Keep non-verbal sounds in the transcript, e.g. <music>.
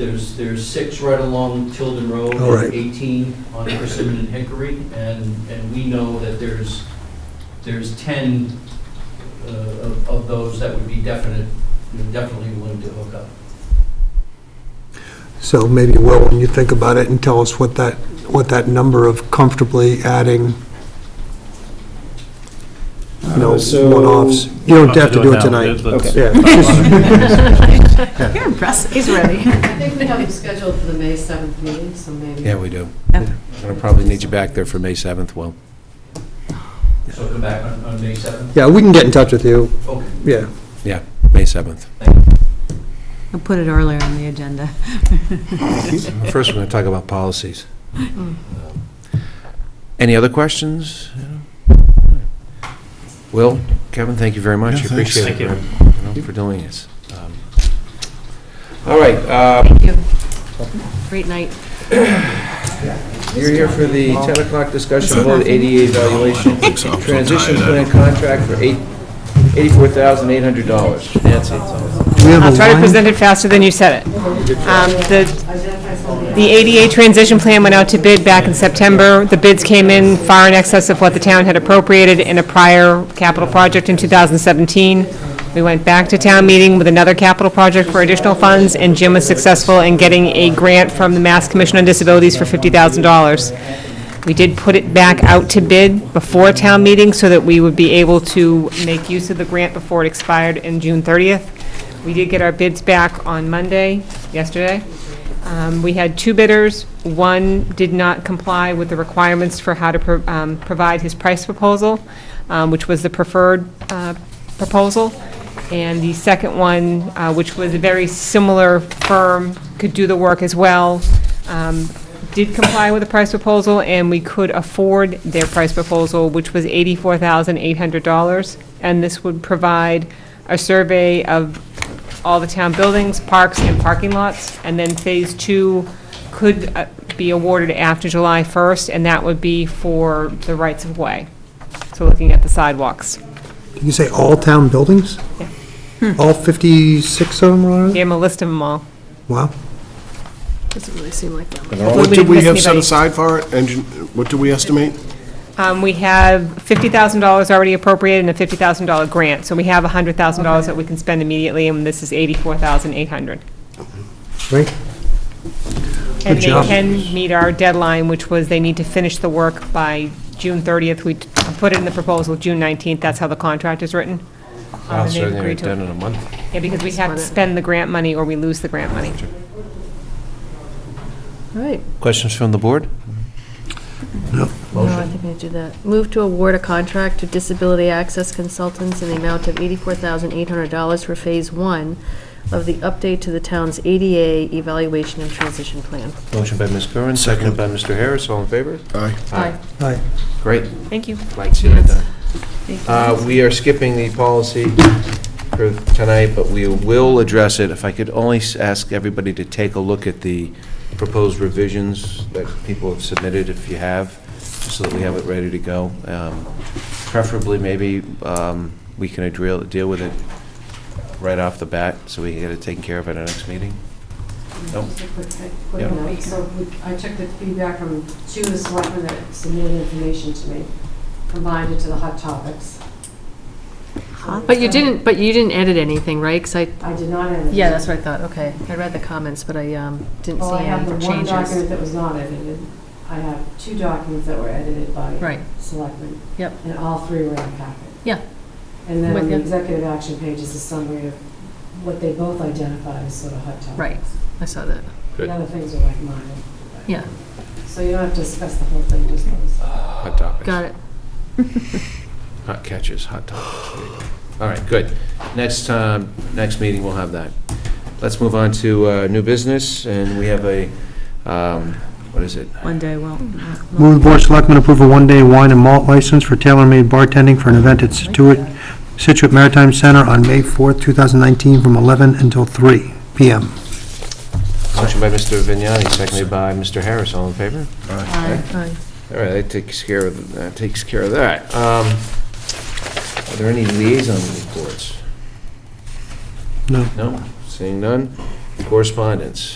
There's, there's six right along Tilden Road, All right. and 18 on Persimmon and Hickory, and, and we know that there's, there's 10 uh, of of those that would be definite, you know, definitely willing to hook up. So maybe, Will, when you think about it and tell us what that, what that number of comfortably adding, you know, Uh, so- one-offs. You don't have to do it tonight. Yeah, You're impressive. He's ready. I think we have them scheduled for the May 7th meeting, so maybe. Yeah, we do. Yep. I'm going to probably need you back there for May 7th, Will. So come back on, on May 7th? yeah, we can get in touch with you, Okay. yeah. Yeah, May 7th. I'll put it earlier on the agenda. First, we're going to talk about policies. Any other questions? Will, Kevin, thank you very much. Yeah, thanks. Appreciate it. Thank you. you know, For doing this. Um, All right, uh, Thank you. Great night. you're here for the 10 o'clock discussion about ADA evaluation, transition plan contract for eight- $84,800. Nancy, it's all- We have I'll a try to line- present it faster than you said it. Um, The the ADA transition plan went out to bid back in September. The bids came in far in excess of what the town had appropriated in a prior capital project in 2017. We went back to town meeting with another capital project for additional funds, and Jim was successful in getting a grant from the Mass Commission on Disabilities for $50,000. We did put it back out to bid before town meeting so that we would be able to make use of the grant before it expired in June 30th. We did get our bids back on Monday, yesterday. Um, We had two bidders. One did not comply with the requirements for how to pro- um, provide his price proposal, um, which was the preferred uh, proposal. And the second one, uh, which was a very similar firm, could do the work as well, um, did comply with the price proposal, and we could afford their price proposal, which was $84,800. And this would provide a survey of all the town buildings, parks, and parking lots. And then Phase Two could uh, be awarded after July 1st, and that would be for the rights-of-way. So looking at the sidewalks. Did you say all town buildings? All 56 of them are on it? Gave them a list of them all. Wow. Doesn't really seem like that. What we did we didn't have miss set anybody. aside for it? Engine, what do we estimate? Um, We have $50,000 already appropriated and a $50,000 grant, so we have $100,000 that we can spend immediately, and this is $84,800. Right? And they job. can meet our deadline, which was they need to finish the work by June 30th. We t- put it in the proposal, June 19th, that's how the contract is written. <laughs> Um, and I'll they've certainly agreed get it to done in a month. Yeah, because we have to spend the grant money or we lose the grant money. All right, Questions from the board? no, I think I do that. Move to award a contract to Disability Access Consultants in the amount of $84,800 for Phase 1 of the update to the town's ADA evaluation and transition plan. Motion by Ms. Curran, seconded by Mr. Harris, all in favor? Aye. Aye. Hi. Great, Thank you. glad to see that done. Uh, We are skipping the policy for tonight, but we will address it. If I could only s- ask everybody to take a look at the proposed revisions that people have submitted, if you have, so that we have it ready to go. Um, Preferably, maybe, um, we can deal deal with it right off the bat, so we can get it taken care of at our next meeting. Nope. Just a quick- quick Yeah. note. So we- I took the feedback from two of the selectmen that submitted information to me, combined it to the hot topics. But you didn't, but you didn't edit anything, right? 'Cause I, I did not edit. it. yeah, that's what I thought, okay. I read the comments, but I um, didn't Well, see I have any the one document changes. that was not edited. I have two documents that were edited by Right. selectmen. Yep. And all three were in the packet. Yeah. And then on With the you. executive action page is a summary of what they both identified as sort of hot topics. Right. I saw that, The other things are like minor. yeah, So you don't have to discuss the whole thing, just those. Hot topics. got it. Hot catches, hot topics. There you go. All right, good. Next, um, next meeting, we'll have that. Let's move on to uh, new business, and we have a, um, what is it? One day, well. Move the Board of Selectmen approve a one-day wine and malt license for tailor-made bartending for an event at Situate, Situate Maritime Center on May 4th, 2019, from 11 until 3 p.m. Motion by Mr. Vignani, seconded by Mr. Harris. All in favor? Aye. All right, that takes care of, that takes care of that. Um, Are there any liaison reports? No. No? Seeing none? Correspondence?